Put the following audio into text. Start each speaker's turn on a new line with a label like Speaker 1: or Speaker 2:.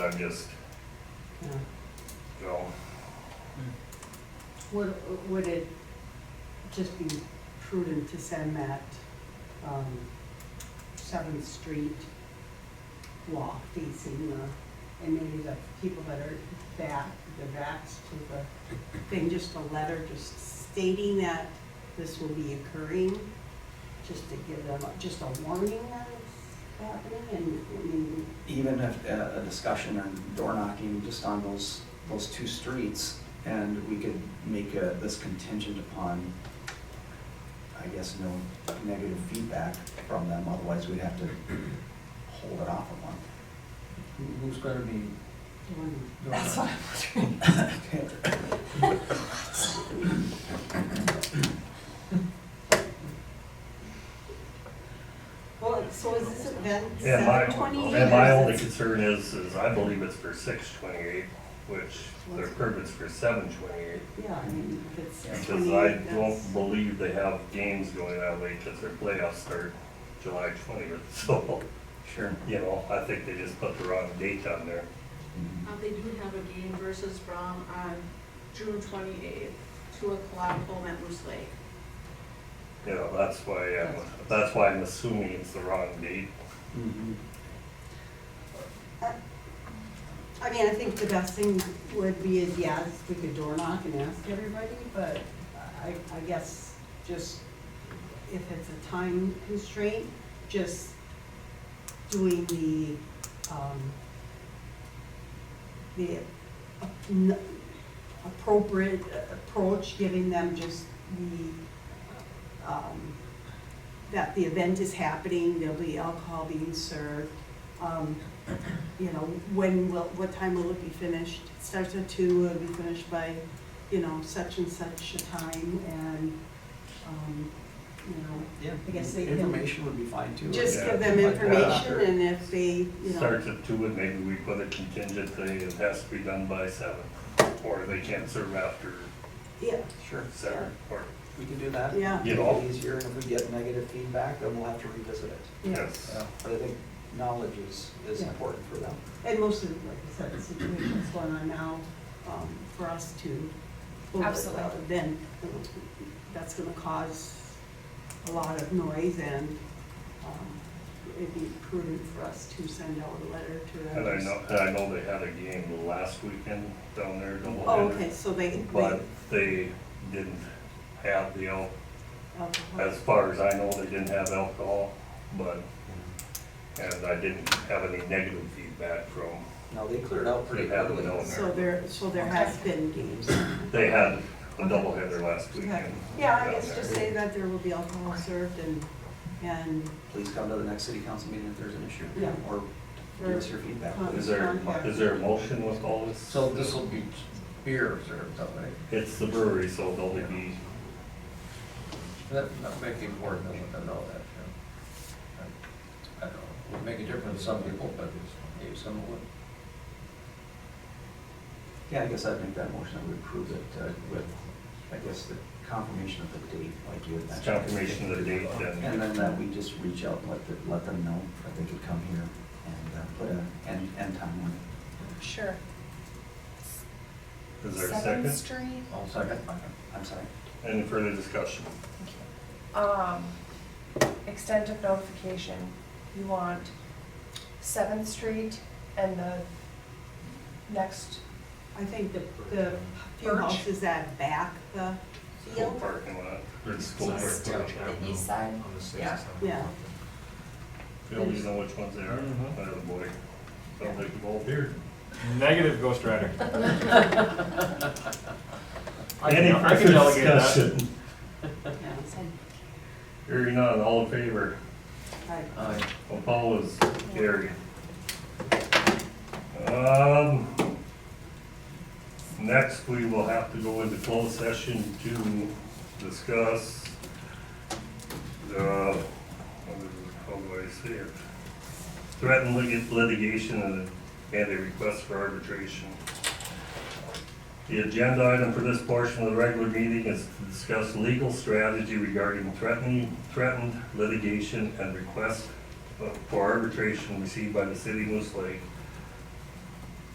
Speaker 1: just,
Speaker 2: Yeah.
Speaker 1: you know,
Speaker 2: Would, would it just be prudent to send that, um, Seventh Street walk facing the, and maybe the people that are back, the backs to the thing, just a letter just stating that this will be occurring, just to give them, a- just a warning that it's happening, and, I mean,
Speaker 3: even if uh, a discussion on door knocking just on those, those two streets, and we could make uh, this contingent upon, I guess, no negative feedback from them, otherwise we'd have to hold it off a month.
Speaker 4: Who- Who's gonna be
Speaker 2: warning.
Speaker 4: doing it?
Speaker 2: Well, so is this event
Speaker 1: and my,
Speaker 2: seven twenty-eight?
Speaker 1: and my only concern is, is I believe it's for six twenty-eight, which their permit's for seven twenty-eight.
Speaker 2: Yeah, I mean, if it's
Speaker 1: Because I
Speaker 2: twenty-eight, that's,
Speaker 1: don't believe they have games going that late because their playoffs start July twentieth, so,
Speaker 3: Sure.
Speaker 1: you know, I think they just put the wrong date on there.
Speaker 5: Uh, They do have a game versus Brom on June twenty-eighth, two o'clock home at Moose Lake.
Speaker 1: You know, that's why, I'm- that's why I'm assuming it's the wrong date.
Speaker 3: Mhm.
Speaker 2: I mean, I think the best thing would be is, yeah, if we could door knock and ask everybody, but I, I guess just if it's a time constraint, just doing the, um, the uh, n- appropriate approach, giving them just the, um, that the event is happening, there'll be alcohol being served. Um, you know, when will, what time will it be finished? It Starts at two, it'll be finished by, you know, such and such a time and, um, you know,
Speaker 3: Yeah,
Speaker 2: I guess they can-
Speaker 3: Mm-hmm. Information would be fine too.
Speaker 2: just
Speaker 1: Yeah.
Speaker 2: give them
Speaker 3: Like that.
Speaker 2: information and if they, you know,
Speaker 1: Starts at two and maybe we put a contingent thing, it has to be done by seven. Or they can't serve after
Speaker 2: yeah,
Speaker 3: Sure,
Speaker 1: seven, or,
Speaker 3: we can do that.
Speaker 2: Yeah.
Speaker 3: Make it easier, and if we get negative feedback, then we'll have to revisit it.
Speaker 2: yeah.
Speaker 1: yes.
Speaker 3: But I think knowledge is, is
Speaker 2: Yeah.
Speaker 3: important for them.
Speaker 2: And most of, the- like I said, the situation that's going on now, um, for us to. hold it, uh,
Speaker 6: Absolutely.
Speaker 2: Then, you know, that's gonna cause a lot of noise and, um, it'd be prudent for us to send out a letter to.
Speaker 1: And I
Speaker 2: others.
Speaker 1: know, and I know they had a game last weekend down there, double
Speaker 2: Oh, okay, so they, they.
Speaker 1: But they didn't have the, al-
Speaker 2: alcohol.
Speaker 1: as far as I know, they didn't have alcohol, but, and I didn't have any negative feedback from,
Speaker 3: No, they cleared out pretty
Speaker 1: They have them
Speaker 3: heavily.
Speaker 1: down
Speaker 2: So there, so there has been games.
Speaker 1: they had a doubleheader last weekend.
Speaker 2: Yeah, I
Speaker 1: down
Speaker 2: guess
Speaker 1: there.
Speaker 2: just say that there will be alcohol served and, and
Speaker 3: please come to the next city council meeting if there's an issue.
Speaker 2: Yeah.
Speaker 3: Or give us your feedback,
Speaker 2: Or-
Speaker 3: please.
Speaker 1: Is there, is there a motion with all this?
Speaker 4: So this will be beer served, all right?
Speaker 1: It's the brewery, so they'll be,
Speaker 4: That, that make it important, I want to know that, yeah. I I don't know, would make a difference to some people, but maybe some would.
Speaker 3: Yeah, I guess I'd make that motion, I would approve it uh, with, I guess, the confirmation of the date, like you had
Speaker 1: it's
Speaker 3: mentioned.
Speaker 1: confirmation of the date
Speaker 3: And
Speaker 1: then.
Speaker 3: then that we just reach out, let, the- let them know that they could come here and uh, put an end, end time on it.
Speaker 6: Sure.
Speaker 1: Is there a
Speaker 6: Seventh
Speaker 1: second?
Speaker 6: Street.
Speaker 4: All second?
Speaker 3: I'm sorry.
Speaker 1: Any further discussion?
Speaker 6: Thank you. Um, extent of notification, you want Seventh Street and the next,
Speaker 2: I think the, the few
Speaker 6: Birch.
Speaker 2: houses that back the
Speaker 1: School
Speaker 2: field,
Speaker 1: parking lot, or the school
Speaker 6: East.
Speaker 1: parking lot.
Speaker 6: the east side? Yeah.
Speaker 2: yeah.
Speaker 1: We don't even know which ones they are,
Speaker 7: Mhm.
Speaker 1: by the boy. Sounds like you've all appeared.
Speaker 7: Negative Ghost Rider. I
Speaker 1: Any
Speaker 7: can- I can
Speaker 1: further
Speaker 7: delegate that.
Speaker 1: discussion?
Speaker 2: yeah.
Speaker 1: Hearing none, all in favor,
Speaker 2: Right.
Speaker 4: Aye.
Speaker 1: opposed, carried. Um, next, we will have to go into closed session to discuss uh, the, how do I say it? Threatened lit- litigation and a- and a request for arbitration. The agenda item for this portion of the regular meeting is to discuss legal strategy regarding threatening, threatened litigation and request for arbitration received by the city of Moose Lake